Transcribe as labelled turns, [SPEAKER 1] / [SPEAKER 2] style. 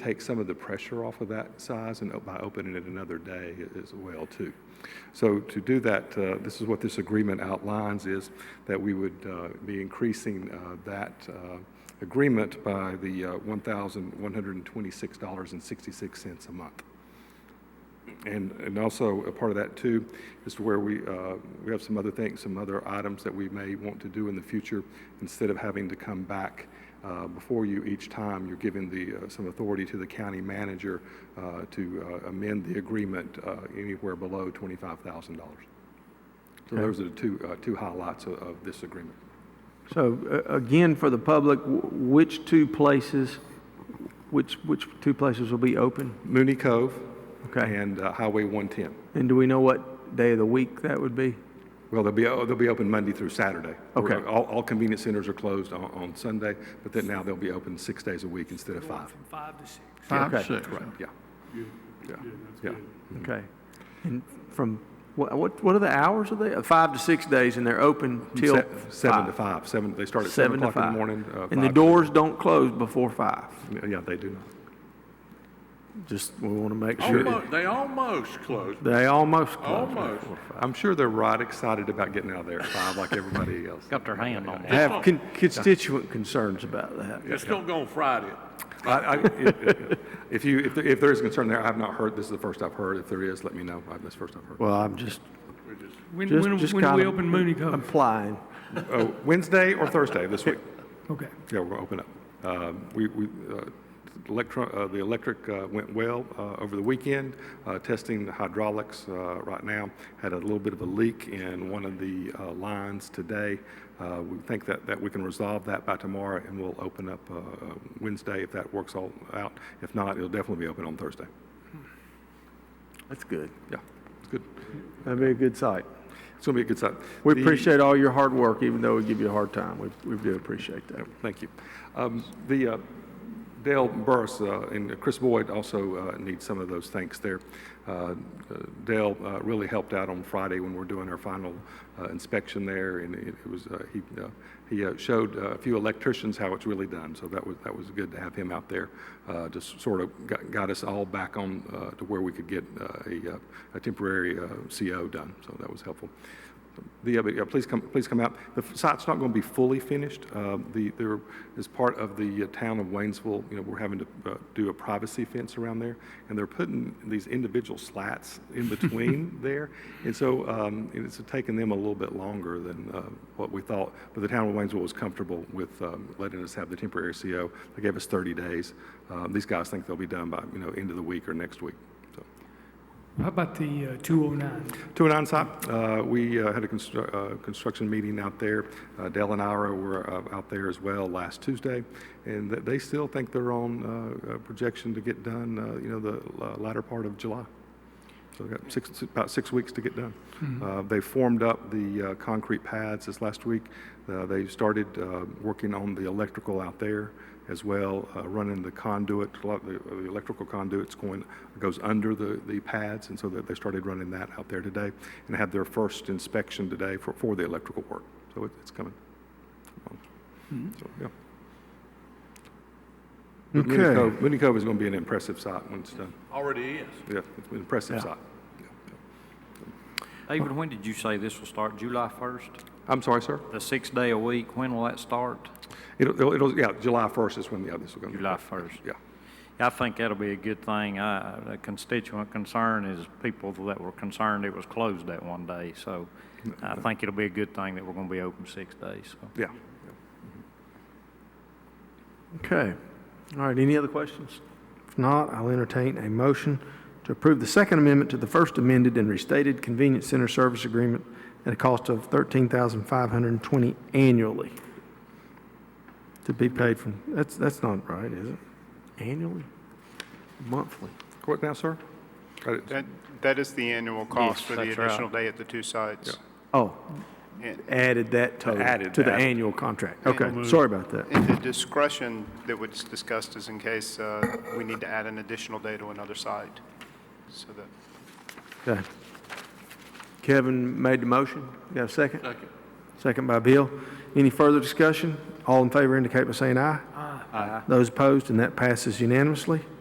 [SPEAKER 1] take some of the pressure off of that size and op- by opening it another day a- as well too. So to do that, uh, this is what this agreement outlines is that we would uh, be increasing uh, that uh, agreement by the uh, $1,126.66 a month. And, and also, a part of that too, is to where we, uh, we have some other things, some other items that we may want to do in the future. Instead of having to come back uh, before you each time, you're giving the, uh, some authority to the county manager uh, to uh, amend the agreement uh, anywhere below $25,000. So those are the two, uh, two highlights of, of this agreement.
[SPEAKER 2] So uh, again, for the public, wh- which two places, which, which two places will be open?
[SPEAKER 1] Mooney Cove
[SPEAKER 2] Okay.
[SPEAKER 1] and uh, Highway 110.
[SPEAKER 2] And do we know what day of the week that would be?
[SPEAKER 1] Well, they'll be, oh, they'll be open Monday through Saturday.
[SPEAKER 2] Okay.
[SPEAKER 1] We're- All, all convenience centers are closed on, on Sunday, but then now they'll be open six days a week instead of five.
[SPEAKER 3] From five to six.
[SPEAKER 4] Five,
[SPEAKER 2] Okay.
[SPEAKER 4] six.
[SPEAKER 1] Right, yeah. Yeah, yeah.
[SPEAKER 2] Okay. And from, wha- what, what are the hours of they? Uh, Five to six days, and they're open till
[SPEAKER 1] Se- Seven to
[SPEAKER 2] five?
[SPEAKER 1] five, seven, they start at seven
[SPEAKER 2] Seven to
[SPEAKER 1] o'clock in the
[SPEAKER 2] five.
[SPEAKER 1] morning. uh,
[SPEAKER 2] And the
[SPEAKER 1] five-
[SPEAKER 2] doors don't close before five?
[SPEAKER 1] Yeah, they do not.
[SPEAKER 2] Just, we want to make sure.
[SPEAKER 4] Almost, they almost closed.
[SPEAKER 2] They almost close.
[SPEAKER 4] Almost.
[SPEAKER 1] I'm sure they're right excited about getting out of there at five like everybody else.
[SPEAKER 5] Got their hand on
[SPEAKER 2] I
[SPEAKER 5] that.
[SPEAKER 2] have con- constituent concerns about that.
[SPEAKER 4] Just don't go on Friday.
[SPEAKER 1] I, I, if- if you, if, there- if there is concern there, I have not heard, this is the first I've heard. If there is, let me know. I- That's the first I've heard.
[SPEAKER 2] Well, I'm just,
[SPEAKER 3] When,
[SPEAKER 2] just,
[SPEAKER 3] when,
[SPEAKER 2] just
[SPEAKER 3] when do
[SPEAKER 2] kind
[SPEAKER 3] we
[SPEAKER 2] of
[SPEAKER 3] open Mooney Cove?
[SPEAKER 2] implying.
[SPEAKER 1] Oh, Wednesday or Thursday this week?
[SPEAKER 3] Okay.
[SPEAKER 1] Yeah, we're open up. Um, We, we, uh, electro, uh, the electric uh, went well uh, over the weekend, uh, testing the hydraulics uh, right now. Had a little bit of a leak in one of the uh, lines today. Uh, We think that, that we can resolve that by tomorrow, and we'll open up uh, uh, Wednesday if that works all out. If not, it'll definitely be open on Thursday.
[SPEAKER 2] That's good.
[SPEAKER 1] Yeah, it's good.
[SPEAKER 2] That'd be a good sight.
[SPEAKER 1] It's going to be a good site.
[SPEAKER 2] We
[SPEAKER 1] The-
[SPEAKER 2] appreciate all your hard work, even though we give you a hard time. We, we do appreciate that.
[SPEAKER 1] Thank you. Um, The uh, Dale Burris uh, and Chris Boyd also uh, need some of those thanks there. Uh, uh, Dale uh, really helped out on Friday when we were doing our final uh, inspection there, and it it was, uh, he, uh, he uh, showed uh, a few electricians how it's really done, so that was, that was good to have him out there. uh, Just sort of got- got us all back on uh, to where we could get uh, a uh, a temporary uh, CO done, so that was helpful. The, uh, but, yeah, please come, please come out. The f- site's not going to be fully finished. Uh, The, there, as part of the uh, town of Waynesville, you know, we're having to uh, do a privacy fence around there, and they're putting these individual slats in between there. And so um, and it's taken them a little bit longer than uh, what we thought, but the town of Waynesville was comfortable with um, letting us have the temporary CO. They gave us 30 days. Uh, These guys think they'll be done by, you know, end of the week or next week, so.
[SPEAKER 3] How about the two oh nine?
[SPEAKER 1] To an onsite, uh, we uh, had a constru- uh, construction meeting out there. Uh, Dell and Ira were uh, out there as well last Tuesday, and th- they still think they're on uh, uh, projection to get done, uh, you know, the uh, latter part of July. So they've got six, about six weeks to get done. Uh, They formed up the uh, concrete pads this last week. Uh, They started uh, working on the electrical out there as well, uh, running the conduit, a lot of the uh, the electrical conduits going, goes under the, the pads, and so that they started running that out there today, and had their first inspection today for, for the electrical work. So it- it's coming. So, yeah. But Mooney
[SPEAKER 2] Okay.
[SPEAKER 1] Cove- Mooney Cove is going to be an impressive site when it's done.
[SPEAKER 4] Already is.
[SPEAKER 1] Yeah, it's an impressive site. Yeah, yeah.
[SPEAKER 5] David, when did you say this will start? July 1st?
[SPEAKER 1] I'm sorry, sir?
[SPEAKER 5] The sixth day a week, when will that start?
[SPEAKER 1] It'll, it'll- it'll, yeah, July 1st is when the others will go.
[SPEAKER 5] July 1st.
[SPEAKER 1] Yeah,
[SPEAKER 5] I think that'll be a good thing. I- A constituent concern is people that were concerned it was closed that one day. So I think it'll be a good thing that we're going to be open six days. So
[SPEAKER 1] yeah.
[SPEAKER 2] Okay. All right, any other questions? If not, I'll entertain a motion to approve the Second Amendment to the First Amended and Restated Convenience Center Service Agreement at a cost of thirteen thousand five hundred and twenty annually. To be paid from, that's, that's not right, is it? Annually? Monthly?
[SPEAKER 1] What now, sir? Got it.
[SPEAKER 6] That, that is the annual cost
[SPEAKER 5] Yes,
[SPEAKER 6] for the
[SPEAKER 5] that's right.
[SPEAKER 6] additional day at the two sites.
[SPEAKER 2] Oh,
[SPEAKER 6] And-
[SPEAKER 2] added that total
[SPEAKER 1] Added
[SPEAKER 2] to the
[SPEAKER 1] that.
[SPEAKER 2] annual contract. Okay, sorry about that.
[SPEAKER 6] And the discretion that was discussed is in case uh, we need to add an additional day to another site. So that,
[SPEAKER 2] Okay. Kevin made the motion. You Got a second? Second. Second by Bill. Any further discussion? All in favor indicate by saying aye. Aye. Those opposed, and that passes unanimously.